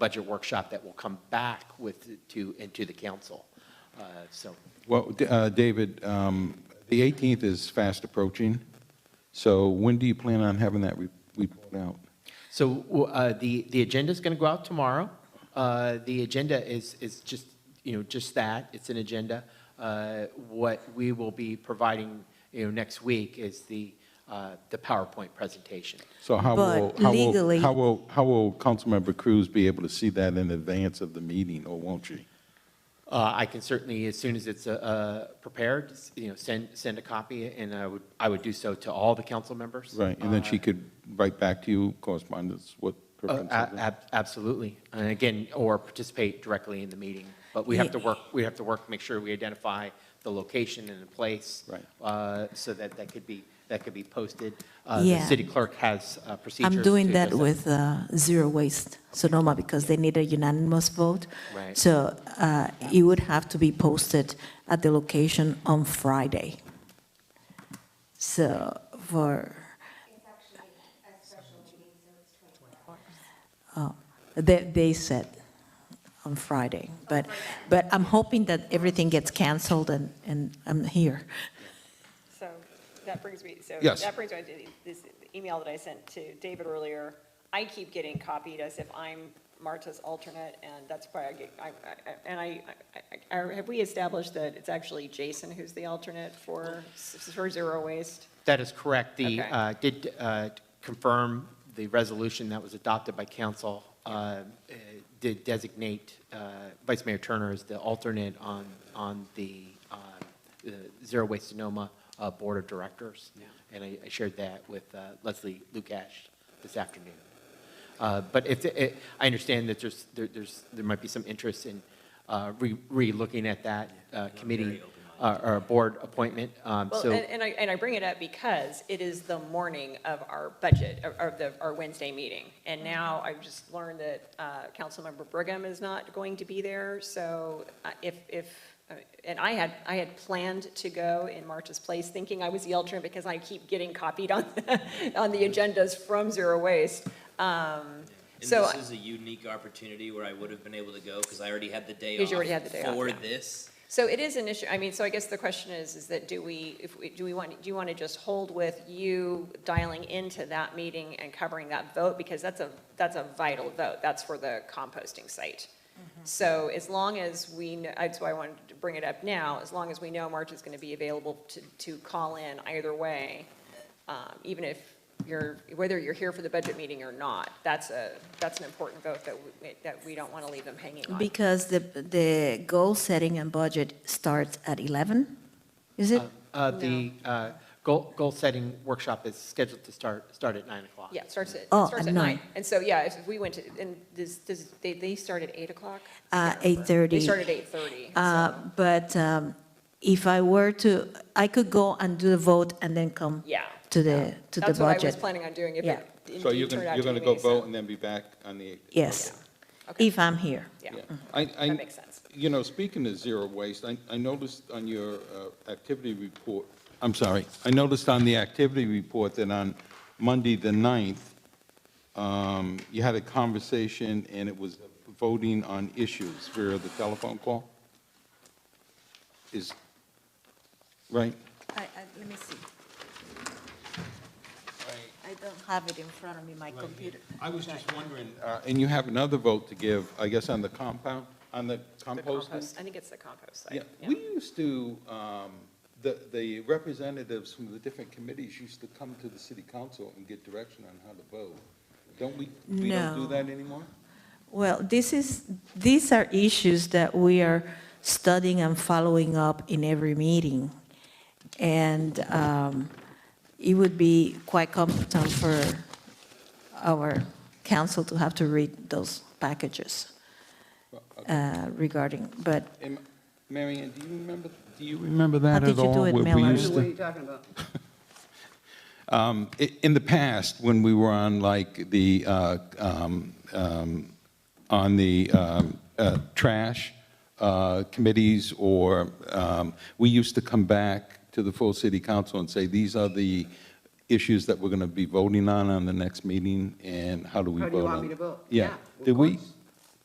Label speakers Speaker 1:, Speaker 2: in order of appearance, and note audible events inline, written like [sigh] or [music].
Speaker 1: budget workshop that will come back with, to, into the council. Uh, So,
Speaker 2: Well, D- uh, David, um, the 18th is fast approaching, so when do you plan on having that re- report out?
Speaker 1: so uh, the, the agenda's going to go out tomorrow. Uh, The agenda is, is just, you know, just that, it's an agenda. Uh, What we will be providing, you know, next week is the, uh, the PowerPoint presentation.
Speaker 2: So how will,
Speaker 3: But
Speaker 2: how will,
Speaker 3: legally-
Speaker 2: how will, how will Councilmember Cruz be able to see that in advance of the meeting, or won't she?
Speaker 1: Uh, I can certainly, as soon as it's uh, uh, prepared, s- you know, send, send a copy, and I would, I would do so to all the council members.
Speaker 2: Right, and then she could write back to you correspondence, what her
Speaker 1: Uh,
Speaker 2: concerns
Speaker 1: a-
Speaker 2: are?
Speaker 1: ab- Absolutely. And again, or participate directly in the meeting. But we have to work, we have to work, make sure we identify the location and the place.
Speaker 2: Right.
Speaker 1: uh, So that that could be, that could be posted. Uh, The
Speaker 3: Yeah.
Speaker 1: city clerk has uh, procedures.
Speaker 3: I'm doing
Speaker 1: to
Speaker 3: that
Speaker 1: just-
Speaker 3: with uh, Zero Waste Sonoma because they need a unanimous vote.
Speaker 1: Right.
Speaker 3: So uh, it would have to be posted at the location on Friday. So for,
Speaker 4: It's actually a special meeting, so it's 24 hours.
Speaker 3: oh, they, they said on Friday, but, but I'm hoping that everything gets canceled and, and I'm here.
Speaker 5: So that brings me, so
Speaker 2: Yes.
Speaker 5: that brings me to this email that I sent to David earlier. I keep getting copied as if I'm Marta's alternate, and that's why I get, I, I- and I, I- I- have we established that it's actually Jason who's the alternate for, for zero waste?
Speaker 1: That is correct. The,
Speaker 5: Okay.
Speaker 1: uh, did uh, confirm the resolution that was adopted by council, uh, uh, did designate uh, Vice Mayor Turner as the alternate on, on the uh, the Zero Waste Sonoma uh, Board of Directors. And I I shared that with uh, Leslie Lukash this afternoon. Uh, But if, it- I understand that there's, there- there's, there might be some interest in uh, re- re-looking at that uh, committee uh, or board appointment, um,
Speaker 5: Well,
Speaker 1: so.
Speaker 5: and, and I, and I bring it up because it is the morning of our budget, of- of the, our Wednesday meeting. And
Speaker 1: Mm-hmm.
Speaker 5: now I've just learned that, uh, Councilmember Brigham is not going to be there, so uh, if, if, uh, and I had, I had planned to go in March's place, thinking I was the alternate because I keep getting copied on, [laughs] on the
Speaker 1: Mm-hmm.
Speaker 5: agendas from Zero Waste. Um,
Speaker 6: And
Speaker 5: So-
Speaker 6: this is a unique opportunity where I would have been able to go because I already had the day off.
Speaker 5: Because you already had the day off,
Speaker 6: For
Speaker 5: yeah.
Speaker 6: this,
Speaker 5: So it is an issue, I mean, so I guess the question is, is that do we, if we, do we want, do you want to just hold with you dialing into that meeting and covering that vote? Because that's a, that's a vital vote, that's for the composting site. So as long as we, kn- that's why I wanted to bring it up now, as long as we know March is going to be available to, to call in either way, um, even if you're, whether you're here for the budget meeting or not, that's a, that's an important vote that, we- that we don't want to leave them hanging on.
Speaker 3: Because the, the goal setting and budget starts at 11, is it?
Speaker 1: Uh, The uh, goal, goal-setting workshop is scheduled to start, start at 9 o'clock.
Speaker 5: Yeah, it starts at, it
Speaker 3: Oh,
Speaker 5: starts
Speaker 3: at
Speaker 5: at
Speaker 3: nine.
Speaker 5: nine. And so, yeah, if if we went to, and this, this, they, they start at eight o'clock?
Speaker 3: Uh,
Speaker 5: They
Speaker 3: 8:30.
Speaker 5: start at eight thirty.
Speaker 3: Uh, But um, if I were to, I could go and do the vote and then come
Speaker 5: Yeah.
Speaker 3: to the, to the
Speaker 5: That's what I was
Speaker 3: budget.
Speaker 5: planning on doing if
Speaker 3: Yeah.
Speaker 5: it indeed turned out to be me.
Speaker 2: and then be back on the 8th?
Speaker 3: Yes,
Speaker 5: Okay.
Speaker 3: if I'm here.
Speaker 5: Yeah,
Speaker 2: I, I.
Speaker 5: that makes sense.
Speaker 2: You know, speaking of zero waste, I, I noticed on your uh, activity report, I'm sorry, I noticed on the activity report that on Monday, the 9th, um, you had a conversation and it was voting on issues via the telephone call? Is, right?
Speaker 3: Let me see. I don't have it in front of me, my computer.
Speaker 2: I was just wondering. uh, And you have another vote to give, I guess, on the compound, on the
Speaker 5: The
Speaker 2: composting?
Speaker 5: compost, I think it's the compost
Speaker 2: Yeah,
Speaker 5: site.
Speaker 2: we used to, um, the, the representatives from the different committees used to come to the city council and get direction on how to vote. Don't we, we don't do
Speaker 3: No.
Speaker 2: that anymore?
Speaker 3: Well, this is, these are issues that we are studying and following up in every meeting. And um, it would be quite competent for our council to have to read those packages uh, regarding, but
Speaker 2: Am, Mary Ann, do you remember, do you remember that
Speaker 3: How did
Speaker 2: at
Speaker 3: you
Speaker 2: all?
Speaker 3: do it,
Speaker 2: where we
Speaker 3: Miller?
Speaker 2: used to-
Speaker 7: What are you talking about?
Speaker 2: I- In the past, when we were on like the, uh, um, um, on the um, uh, trash uh, committees, or um, we used to come back to the full city council and say, these are the issues that we're going to be voting on on the next meeting, and how do we
Speaker 7: How
Speaker 2: vote
Speaker 7: do you
Speaker 2: on?
Speaker 7: want me to vote?
Speaker 2: Yeah.
Speaker 7: of
Speaker 2: Did we,
Speaker 7: course.